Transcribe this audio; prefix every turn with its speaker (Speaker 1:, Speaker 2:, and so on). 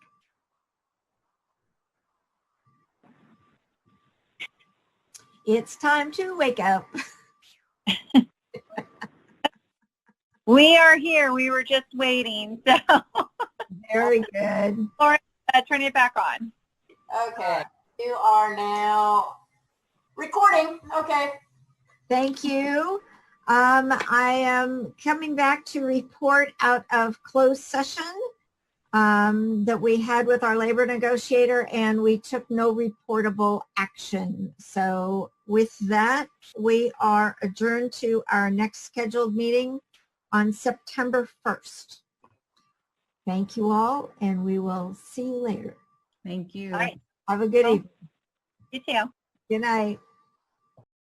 Speaker 1: It's time to wake up.
Speaker 2: We are here. We were just waiting. So
Speaker 1: Very good.
Speaker 2: uh, turn it back on.
Speaker 3: Okay, you are now recording. Okay.
Speaker 1: Thank you. Um, I am coming back to report out of closed session um, that we had with our labor negotiator and we took no reportable action. So with that, we are adjourned to our next scheduled meeting on September 1st. Thank you all and we will see you later.
Speaker 4: Thank you.
Speaker 2: All right.
Speaker 1: Have a good
Speaker 2: Well-
Speaker 1: evening.
Speaker 2: You too.
Speaker 1: Good night.